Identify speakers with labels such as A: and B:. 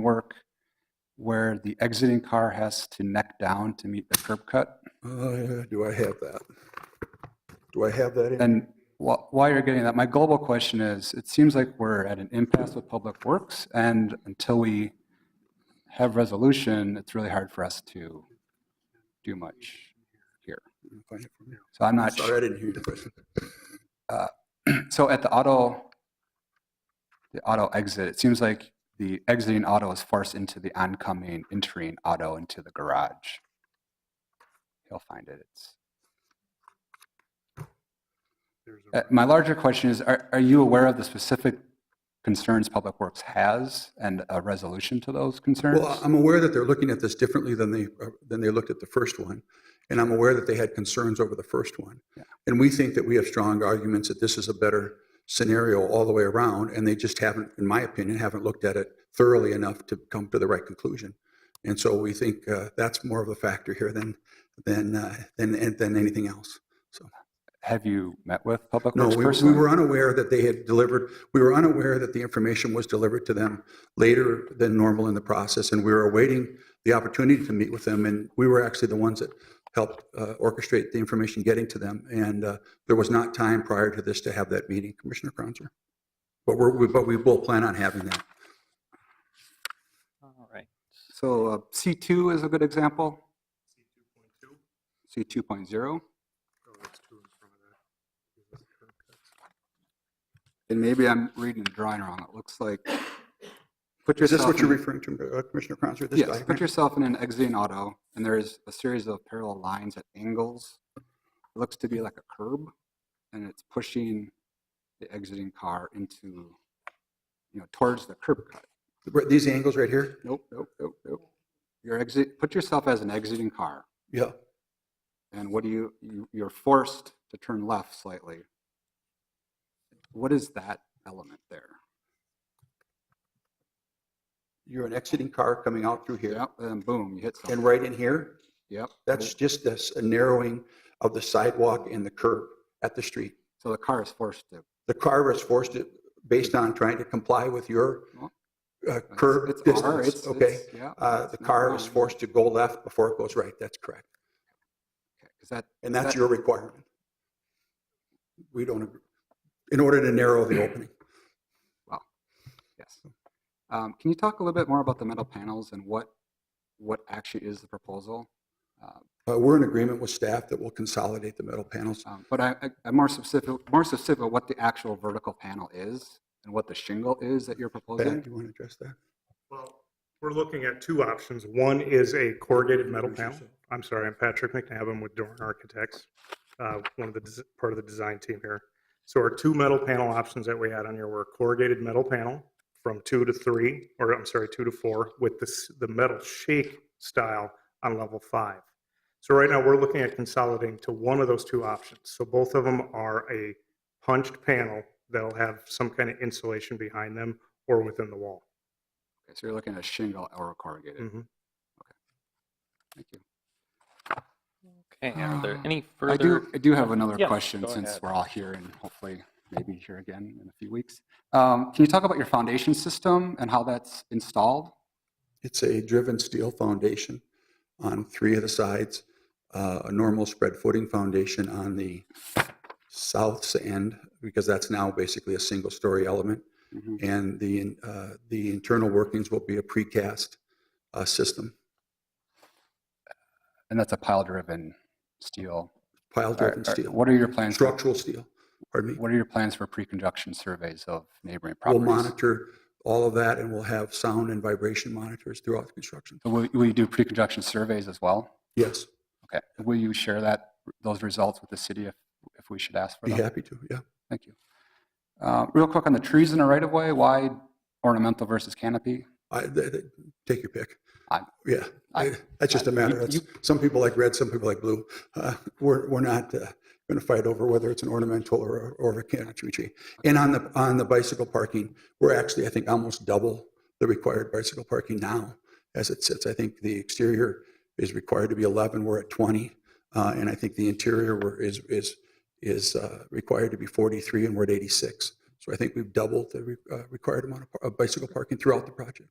A: work where the exiting car has to neck down to meet the curb cut.
B: Uh, Do I have that? Do I have that? in-
A: And wh- while you're getting that, my global question is, it seems like we're at an impasse with Public Works, and until we have resolution, it's really hard for us to do much here. So I'm not,
B: Sorry, I didn't hear your question.
A: su- so at the auto, the auto exit, it seems like the exiting auto is forced into the oncoming entering auto into the garage. He'll find it, it's. Uh, My larger question is, are, are you aware of the specific concerns Public Works has and a resolution to those concerns?
B: Well, um, I'm aware that they're looking at this differently than they, uh, than they looked at the first one. And I'm aware that they had concerns over the first one.
A: Yeah.
B: And we think that we have strong arguments that this is a better scenario all the way around. And they just haven't, in my opinion, haven't looked at it thoroughly enough to come to the right conclusion. And so we think uh, that's more of a factor here than, than, uh, than, than anything else.
A: Have you met with Public
B: No,
A: Works
B: we, we
A: personally?
B: were unaware that they had delivered, we were unaware that the information was delivered to them later than normal in the process, and we were awaiting the opportunity to meet with them, and we were actually the ones that helped uh, orchestrate the information getting to them, and uh, there was not time prior to this to have that meeting, Commissioner Cronzer. But we're, we- but we will plan on having that.
C: All right.
A: So uh, C2 is a good example? C2.0? And maybe I'm reading the drawing wrong. It looks like, put
B: Is this
A: yourself,
B: what you're
A: in-
B: referring to, uh, Commissioner Cronzer? this
A: yes, put
B: diagram?
A: yourself in an exiting auto, and there is a series of parallel lines at angles. It looks to be like a curb, and it's pushing the exiting car into, you know, towards the curb cut.
B: These angles right here?
A: Nope, nope, nope, nope. You're exit, put yourself as an exiting car,
B: Yeah.
A: and what do you, you, you're forced to turn left slightly. What is that element there?
B: You're an exiting car coming out through here,
A: Yep, and boom, you hit
B: and
A: something.
B: right in here,
A: Yep.
B: That's just this narrowing of the sidewalk and the curb at the street.
A: So the car is forced to,
B: The car was forced to, based on trying to comply with your
A: Well,
B: uh, curb
A: it's, it's R,
B: distance,
A: it's,
B: okay?
A: it's, yeah.
B: Uh, The car is forced to go left before it goes right, that's correct.
A: Is that,
B: And that's
A: That-
B: your requirement. We don't, agree. in order to narrow the opening.
A: yes. Um, can you talk a little bit more about the metal panels and what, what actually is the proposal? Uh,
B: Uh, We're in agreement with staff that we'll consolidate the metal panels.
A: Um, But I, I- I'm more specific, more specific of what the actual vertical panel is and what the shingle is that you're
B: Pat,
A: proposing.
B: do you want to address that?
D: Well, we're looking at two options. One is a corrugated metal
B: Introduce
D: panel. I'm sorry, I'm Patrick McNabb. I'm with Dorn Architects, uh, one of the, des- part of the design team here. So our two metal panel options that we had on here were corrugated metal panel from two to three, or I'm sorry, two to four, with this, the metal shake style on level five. So right now, we're looking at consolidating to one of those two options. So both of them are a punched panel that'll have some kind of insulation behind them or within the wall.
A: Okay, So you're looking at shingle or corrugated.
B: Mm.
D: Mhm.
A: Thank you.
C: Okay, and are there
A: Um,
C: any
A: I do,
C: further?
A: I do have another
C: Yes,
A: question
C: go
A: since
C: ahead.
A: we're all here and hopefully maybe here again in a few weeks. Um, Can you talk about your foundation system and how that's installed?
B: It's a driven steel foundation on three of the sides, uh, a normal spread footing foundation on the south end, because that's now basically a single-story element.
A: Mhm.
B: And the, uh, the internal workings will be a precast uh, system,
A: And that's a pile-driven steel.
B: pile-driven
A: Are- are-
B: steel,
A: What are your plans, for-
B: structural steel, pardon me.
A: what are your plans for pre-conjunction surveys of neighboring
B: We'll
A: properties?
B: monitor all of that, and we'll have sound and vibration monitors throughout the construction.
A: So Will will you do pre-conjunction surveys as well?
B: Yes,
A: Okay, will you share that, those results with the city if, if we should ask for
B: be
A: them?
B: happy to, yeah.
A: Thank you. Uh, Real quick on the trees in the right-of-way, why ornamental versus canopy?
B: I, th- th- take your pick.
A: I-
B: Yeah,
A: I-
B: I- that's just a matter,
A: you-
B: that's- some people like red, some people like blue. Uh, We're, we're not going to fight over whether it's an ornamental or, or a canopy tree. And on the, on the bicycle parking, we're actually, I think, almost double the required bicycle parking now as it sits. I think the exterior is required to be 11, we're at 20. uh, And I think the interior were- is, is, is uh, required to be 43 and we're at 86. So I think we've doubled the re- uh, required amount of pa- of bicycle parking throughout the project.